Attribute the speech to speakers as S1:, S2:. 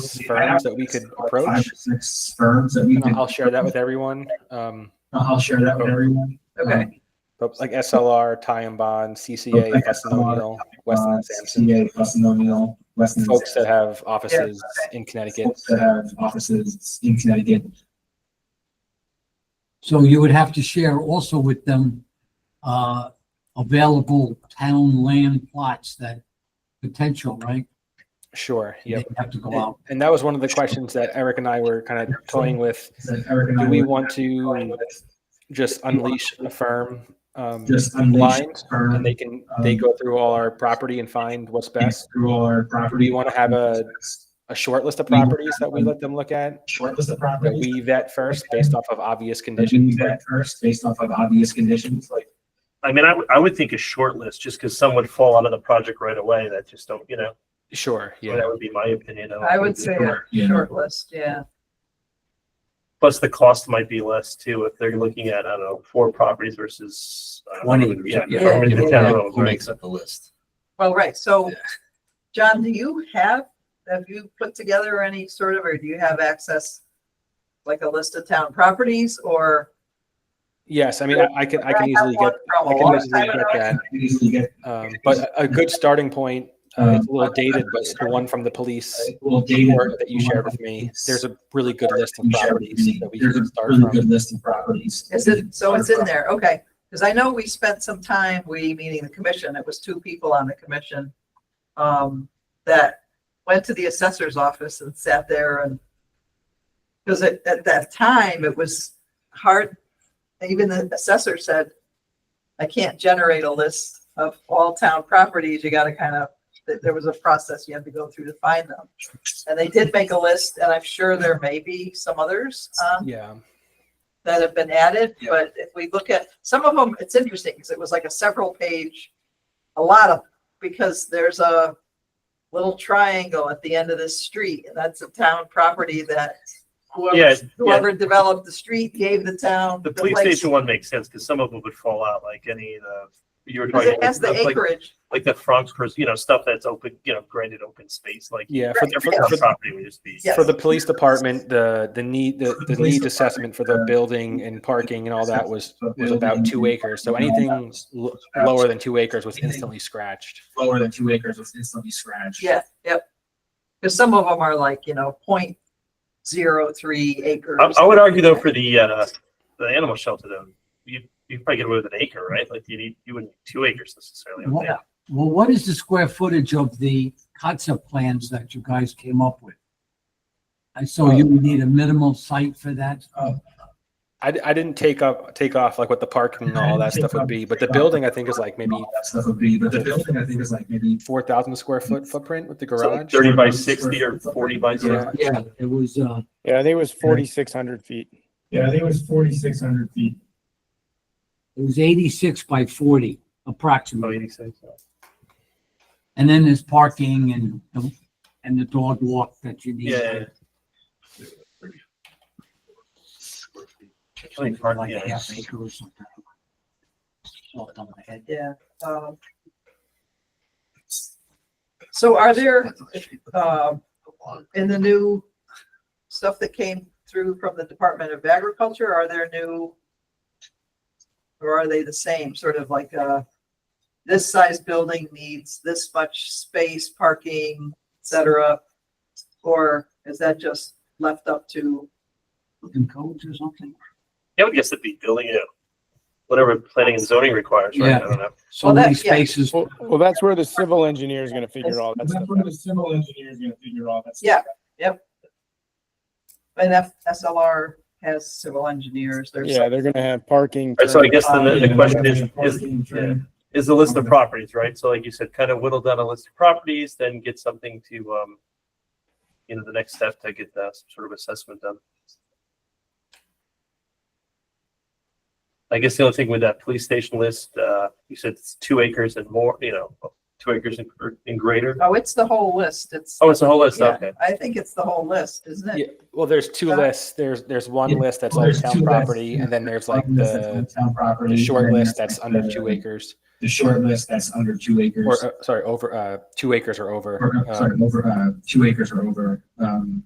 S1: six firms that we could approach.
S2: Five or six firms that we
S1: And
S2: could.
S1: I'll share that with everyone. Um,
S2: I'll share that with everyone.
S3: Okay.
S2: Um,
S1: but like SLR, Tie and Bond, CCA,
S2: Okay.
S1: Weston O'Neill, Weston
S2: uh,
S1: and Sampson,
S2: CPA, Weston O'Neill, Weston. and
S1: folks that
S2: Sampson,
S1: have offices in Connecticut.
S2: folks That have offices in Connecticut.
S4: So you would have to share also with them, uh, available town land plots that potential, right?
S1: Sure. Yep.
S4: They'd Have to go
S1: And,
S4: out.
S1: and that was one of the questions that Eric and I were kind of toying with.
S2: So Eric and I
S1: Do we
S2: were
S1: want to
S2: going with
S1: just unleash a firm? Um,
S2: Just um, unleash
S1: blind
S2: firm.
S1: and they can, they go through all our property and find what's best.
S2: Through all our property.
S1: We wanna have a- A short list of properties that
S2: um,
S1: we let them look at,
S2: Short list of
S1: that
S2: properties.
S1: we vet first based off of obvious
S2: Conditions
S1: conditions.
S2: that first, based off of obvious conditions, like
S5: I mean, I would, I would think a short list, just because some would fall out of the project right away that just don't, you know,
S1: Sure, yeah.
S5: that would be my opinion. don't
S3: I
S5: think
S3: would
S5: it's
S3: say a
S5: short.
S2: Yeah.
S3: short list, yeah.
S5: Plus the cost might be less too, if they're looking at, I don't know, four properties versus. I don't know,
S6: Twenty, yeah.
S5: Yeah. properties in town,
S6: Who
S5: right?
S6: makes up the list?
S3: Well, right, so,
S6: Yeah.
S3: John, do you have, have you put together any sort of, or do you have access? Like a list of town properties or?
S1: Yes, I mean, I- I can, I can
S3: have
S1: easily
S3: one
S1: get,
S3: From
S1: I
S3: a
S1: can
S3: long
S1: easily
S3: time
S1: get
S3: ago.
S1: that.
S2: easily get,
S1: Um, but a- a good starting point, uh, it's a little dated, but it's the one from the police
S2: uh, well, data.
S1: report that you shared with me. There's a really good list of
S2: You shared with
S1: properties
S2: me.
S1: that we
S2: There's a
S1: can start
S2: really good
S1: from.
S2: list of properties.
S3: Is it, so it's in there, okay. Because I know we spent some time, we, meaning the commission, it was two people on the commission, um, that went to the assessor's office and sat there and, because at, at that time, it was hard, even the assessor said, I can't generate a list of all town properties, you gotta kind of, that there was a process you had to go through to find them. And they did make a list, and I'm sure there may be some others, um,
S1: Yeah,
S3: that have been added,
S1: Yeah.
S3: but if we look at, some of them, it's interesting, because it was like a several page, a lot of, because there's a little triangle at the end of this street, and that's a town property that
S5: Yeah,
S3: whoever,
S5: yeah.
S3: whoever developed the street gave the town.
S5: The police
S3: place,
S5: station one makes sense, because some of them would fall out, like any, of the you were
S3: 'cause
S5: talking.
S3: it has the
S5: like-
S3: acreage,
S5: Like the Franks, pers- you know, stuff that's open, you know, granted open space, like.
S1: yeah. For,
S5: Every
S1: for, for,
S5: property would just be.
S3: Yes.
S1: for the police department, the, the need, the,
S2: For the
S1: the
S2: police
S1: needs assessment for the
S2: department,
S1: building and parking and all that was, was about
S2: Building
S1: two acres. So
S2: and all that
S1: anything
S2: was
S1: l-
S2: scratched.
S1: lower than two acres was instantly scratched.
S2: Lower than two acres was instantly scratched.
S3: yeah, yep. Because some of them are like, you know, point zero three acres.
S5: I, I would argue though for the, uh, the animal shelter though, you, you probably get away with an acre, right? Like you need, you wouldn't need two acres necessarily. I would
S4: Well,
S5: think.
S4: Well, what is the square footage of the concept plans that you guys came up with? I saw you would need a minimal site for that.
S1: I, d- I didn't take up, take off like what the parking and all that stuff would be, but the building I think is like maybe
S2: All that stuff would be, but the building I think is like maybe.
S1: four thousand
S2: Mm.
S1: square foot footprint with the
S5: So, like,
S1: garage.
S5: Thirty by sixty or forty by
S1: Yeah.
S5: sixty.
S4: Yeah, it was, uh,
S7: Yeah, I think it was forty-six hundred feet.
S2: Yeah, I think it was forty-six hundred feet.
S4: it was eighty-six by forty
S5: Oh,
S4: approximately.
S5: 86, yeah.
S4: And then there's parking and, the- and the dog walk that you need.
S5: Yeah.
S4: Like
S5: Parking,
S4: a
S5: yeah.
S4: half acre or something. Off the top of my head.
S3: Yeah. um, So are there, um, in the new stuff that came through from the Department of Agriculture, are there new? Or are they the same, sort of like, uh, this size building needs this much space, parking, et cetera? Or is that just left up to,
S4: Building codes or something.
S5: Yeah, I would guess it'd be building, you know, whatever planning and zoning requires, right?
S4: Yeah.
S5: I don't know.
S4: So
S3: Well, that-
S4: many
S3: yeah.
S4: spaces.
S7: Well, well, that's where the civil engineer is gonna figure all that stuff out.
S2: the civil engineer is gonna figure all that
S3: Yeah. and F- SLR has civil engineers, there's.
S7: Yeah, they're gonna have parking.
S5: Right, so I
S7: turn-
S5: guess then the, the
S2: Yeah,
S5: question is,
S2: definitely
S5: is,
S2: parking, turn.
S5: is the list of properties, right? So like you said, kind of whittle down a list of properties, then get something to, um, you know, the next step to get that sort of assessment done. I guess the only thing with that police station list, uh, you said it's two acres and more, you know, two acres and- or- and greater?
S3: Oh, it's the whole list. It's.
S5: Oh, it's a whole list,
S3: yeah,
S5: okay.
S3: I think it's the whole list, isn't
S1: Yeah,
S3: it?
S1: well, there's two
S3: Uh,
S1: lists. There's there's one
S2: yeah,
S1: list that's
S2: well,
S1: all
S2: there's
S1: town
S2: two lists,
S1: property,
S2: yeah.
S1: and then there's like
S2: List that's
S1: the
S2: on Town property.
S1: the short
S2: and then
S1: list
S2: there's,
S1: that's
S2: like,
S1: under
S2: the-
S1: two acres,
S2: The short list that's under two acres.
S1: or uh, sorry, over uh, two acres or over.
S2: Or, uh,
S1: uh,
S2: sorry, over, uh, two acres or over, um,